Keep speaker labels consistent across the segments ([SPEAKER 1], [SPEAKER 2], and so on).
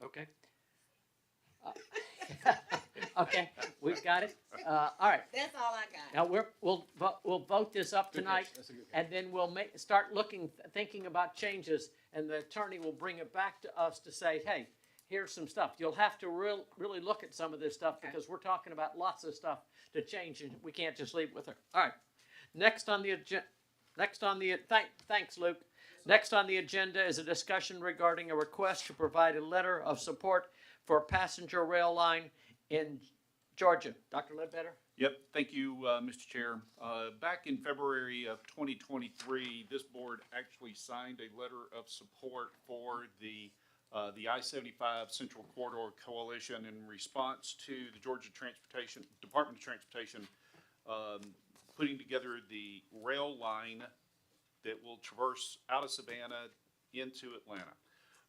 [SPEAKER 1] Okay, we've got it. Uh, all right.
[SPEAKER 2] That's all I got.
[SPEAKER 1] Now, we're, we'll, vo- we'll vote this up
[SPEAKER 3] Good catch.
[SPEAKER 1] tonight,
[SPEAKER 3] That's a good catch.
[SPEAKER 1] and then we'll make, start looking, thinking about changes, and the attorney will bring it back to us to say, hey, here's some stuff. You'll have to real, really look at some of this stuff,
[SPEAKER 2] Okay.
[SPEAKER 1] because we're talking about lots of stuff to change, and we can't just leave it with her. All right. Next on the agenda, next on the, thank, thanks, Luke. Next on the agenda is a discussion regarding a request to provide a letter of support for a passenger rail line in Georgia. Dr. Ledbetter?
[SPEAKER 4] Yep, thank you, uh, Mr. Chair. Uh, Back in February of 2023, this board actually signed a letter of support for the, uh, the I-75 Central Corridor Coalition in response to the Georgia Transportation, Department of Transportation, um, putting together the rail line that will traverse out of Savannah into Atlanta.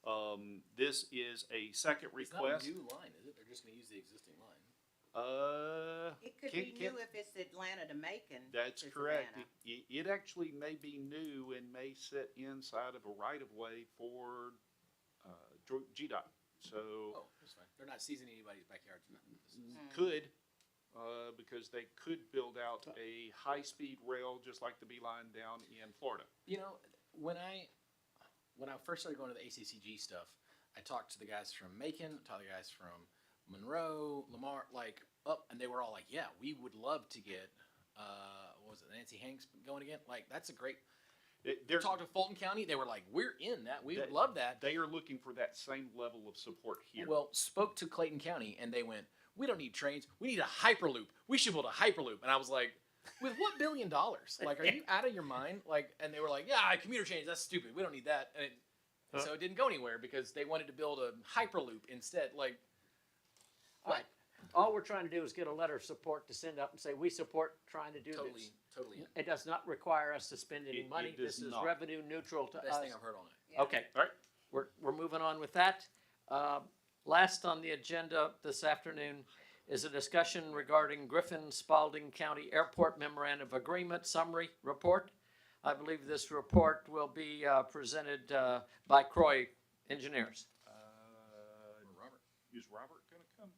[SPEAKER 4] Um, This is a second
[SPEAKER 3] It's not a
[SPEAKER 4] request.
[SPEAKER 3] new line, is it? They're just gonna use the existing line.
[SPEAKER 4] Uh,
[SPEAKER 2] It could
[SPEAKER 4] Can't-
[SPEAKER 2] be
[SPEAKER 4] can't-
[SPEAKER 2] new if it's Atlanta to Macon.
[SPEAKER 4] That's
[SPEAKER 2] to
[SPEAKER 4] correct.
[SPEAKER 2] Savannah.
[SPEAKER 4] It, it it actually may be new and may sit inside of a right of way for, uh, Dro- GDOT. So
[SPEAKER 3] Oh, that's fine. They're not seizing anybody's backyard. it's not- this is-
[SPEAKER 4] could, uh, because they could build out a high-speed rail just like the B line down in Florida.
[SPEAKER 3] You know, when I, when I first started going to the ACCG stuff, I talked to the guys from Macon, I talked to the guys from Monroe, Lamar, like up, and they were all like, "Yeah, we would love to get, uh, what was it Nancy Hanks going again? Like that's a great."
[SPEAKER 4] It- They're,
[SPEAKER 3] Talked to Fulton County, they were like, "We're in that. We would
[SPEAKER 4] That-
[SPEAKER 3] love that."
[SPEAKER 4] they are looking for that same level of support here.
[SPEAKER 3] Well, spoke to Clayton County, and they went, "We don't need trains. We need a hyperloop. We should build a hyperloop." And I was like, "With what billion dollars? Like, are you out of your mind?" Like, and they were like, "Yeah, commuter trains. That's stupid. We don't need that." And it,
[SPEAKER 1] Huh.
[SPEAKER 3] so it didn't go anywhere because they wanted to build a hyperloop instead. Like,
[SPEAKER 1] Right. All we're trying to do is get a letter of support to send up and say, we support trying to do
[SPEAKER 3] totally,
[SPEAKER 1] this.
[SPEAKER 3] totally.
[SPEAKER 1] It does not require us to spend any
[SPEAKER 4] It- it
[SPEAKER 1] money.
[SPEAKER 4] does
[SPEAKER 1] This is
[SPEAKER 4] not.
[SPEAKER 1] revenue neutral to
[SPEAKER 3] Best
[SPEAKER 1] us.
[SPEAKER 3] thing I've heard all night.
[SPEAKER 2] Yeah.
[SPEAKER 1] Okay,
[SPEAKER 4] All right,
[SPEAKER 1] we're, we're moving on with that. Uh, Last on the agenda this afternoon is a discussion regarding Griffin Spalding County Airport Memorandum of Agreement Summary Report. I believe this report will be uh, presented uh, by Croy Engineers.
[SPEAKER 4] uh,
[SPEAKER 3] Robert,
[SPEAKER 4] is Robert gonna come?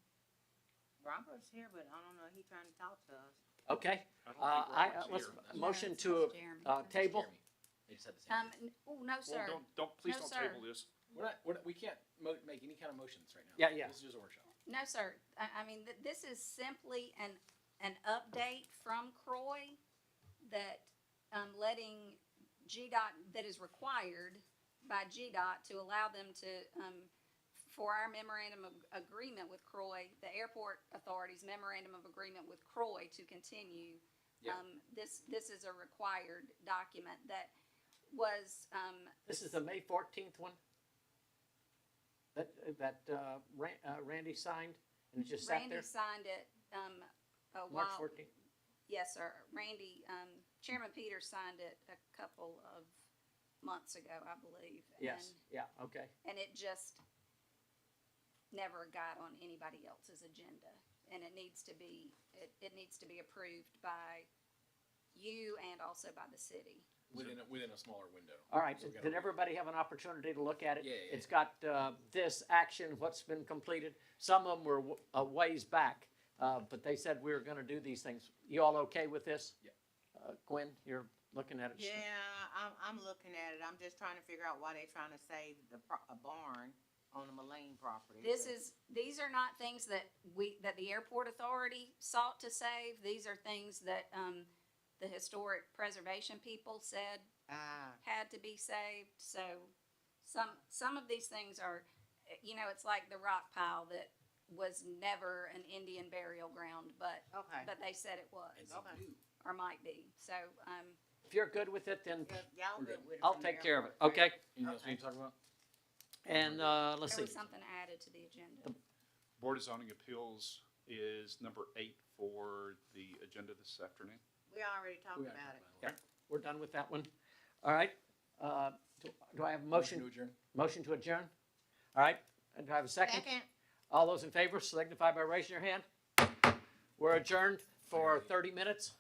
[SPEAKER 2] Robert's here, but I don't know, he trying to talk to us.
[SPEAKER 1] Okay,
[SPEAKER 4] I don't
[SPEAKER 1] uh,
[SPEAKER 4] think
[SPEAKER 1] I,
[SPEAKER 4] Robert's
[SPEAKER 1] let's,
[SPEAKER 4] here.
[SPEAKER 1] motion
[SPEAKER 5] it's
[SPEAKER 1] to,
[SPEAKER 5] not Jeremy.
[SPEAKER 1] uh, table.
[SPEAKER 3] Jeremy, They just had the same.
[SPEAKER 5] Um,
[SPEAKER 3] thing.
[SPEAKER 5] n- oh, no,
[SPEAKER 4] Well,
[SPEAKER 5] sir.
[SPEAKER 4] don't, don't, please
[SPEAKER 5] No,
[SPEAKER 4] don't
[SPEAKER 5] sir.
[SPEAKER 4] table this.
[SPEAKER 3] we're not, we're not, we can't mo- make any kind of motions right now.
[SPEAKER 1] Yeah, yeah.
[SPEAKER 3] This is just a workshop.
[SPEAKER 5] No, sir. I, I mean, th- this is simply an, an update from Croy that, um, letting GDOT, that is required by GDOT to allow them to, um, for our memorandum of agreement with Croy, the airport authority's memorandum of agreement with Croy to continue.
[SPEAKER 3] Yeah.
[SPEAKER 5] Um, this, this is a required document that was, um,
[SPEAKER 1] This is the May fourteenth one? That, that, uh, Ran- uh, Randy signed and it just sat
[SPEAKER 5] Randy
[SPEAKER 1] there?
[SPEAKER 5] signed it, um, a
[SPEAKER 1] March
[SPEAKER 5] while.
[SPEAKER 1] fourteenth?
[SPEAKER 5] Yes, sir. Randy, um, Chairman Peters signed it a couple of months ago, I believe.
[SPEAKER 1] Yes, yeah, okay.
[SPEAKER 5] And, and it just never got on anybody else's agenda. And it needs to be, it, it needs to be approved by you and also by the city.
[SPEAKER 3] Within a, within a smaller window.
[SPEAKER 1] All right,
[SPEAKER 3] So we gotta
[SPEAKER 1] did
[SPEAKER 3] read it.
[SPEAKER 1] everybody have an opportunity to look at it?
[SPEAKER 3] Yeah, yeah,
[SPEAKER 1] It's got, uh, this action, what's been completed. Some of them were w- a ways back, uh, but they said we were gonna do these things. You all okay with this?
[SPEAKER 3] Yeah.
[SPEAKER 1] Uh, Gwen, you're looking at it.
[SPEAKER 2] Yeah, I'm, I'm looking at it, I'm just trying to figure out why they trying to save the, pro- a barn on the Mullane property.
[SPEAKER 5] This
[SPEAKER 2] but-
[SPEAKER 5] is, these are not things that we, that the airport authority sought to save. These are things that, um, the historic preservation people said
[SPEAKER 2] Ah,
[SPEAKER 5] had to be saved. So some some of these things are, you know, it's like the rock pile that was never an Indian burial ground, but
[SPEAKER 2] okay.
[SPEAKER 5] but they said it was
[SPEAKER 3] As you
[SPEAKER 2] Okay.
[SPEAKER 3] do.
[SPEAKER 5] or might be. So um,
[SPEAKER 1] If you're good with it, then
[SPEAKER 2] If Y'all good with it.
[SPEAKER 1] I'll
[SPEAKER 2] from
[SPEAKER 1] take care
[SPEAKER 2] there.
[SPEAKER 1] of it, okay?
[SPEAKER 3] Anything else
[SPEAKER 2] Okay.
[SPEAKER 3] we need to talk about?
[SPEAKER 1] And, uh, let's
[SPEAKER 5] there
[SPEAKER 1] see.
[SPEAKER 5] was something added to the agenda.
[SPEAKER 4] Board of Zoning Appeals is number eight for the agenda this afternoon.
[SPEAKER 2] We already talked
[SPEAKER 3] We gotta
[SPEAKER 2] about it.
[SPEAKER 3] talk
[SPEAKER 1] Yeah. We're done with that one. All right. Uh, do- Do I have a motion,
[SPEAKER 3] to adjourn.
[SPEAKER 1] motion to adjourn? All right. And do I have a second?
[SPEAKER 2] Second,
[SPEAKER 1] All those in favor signify by raising your hand. We're adjourned for 30 minutes.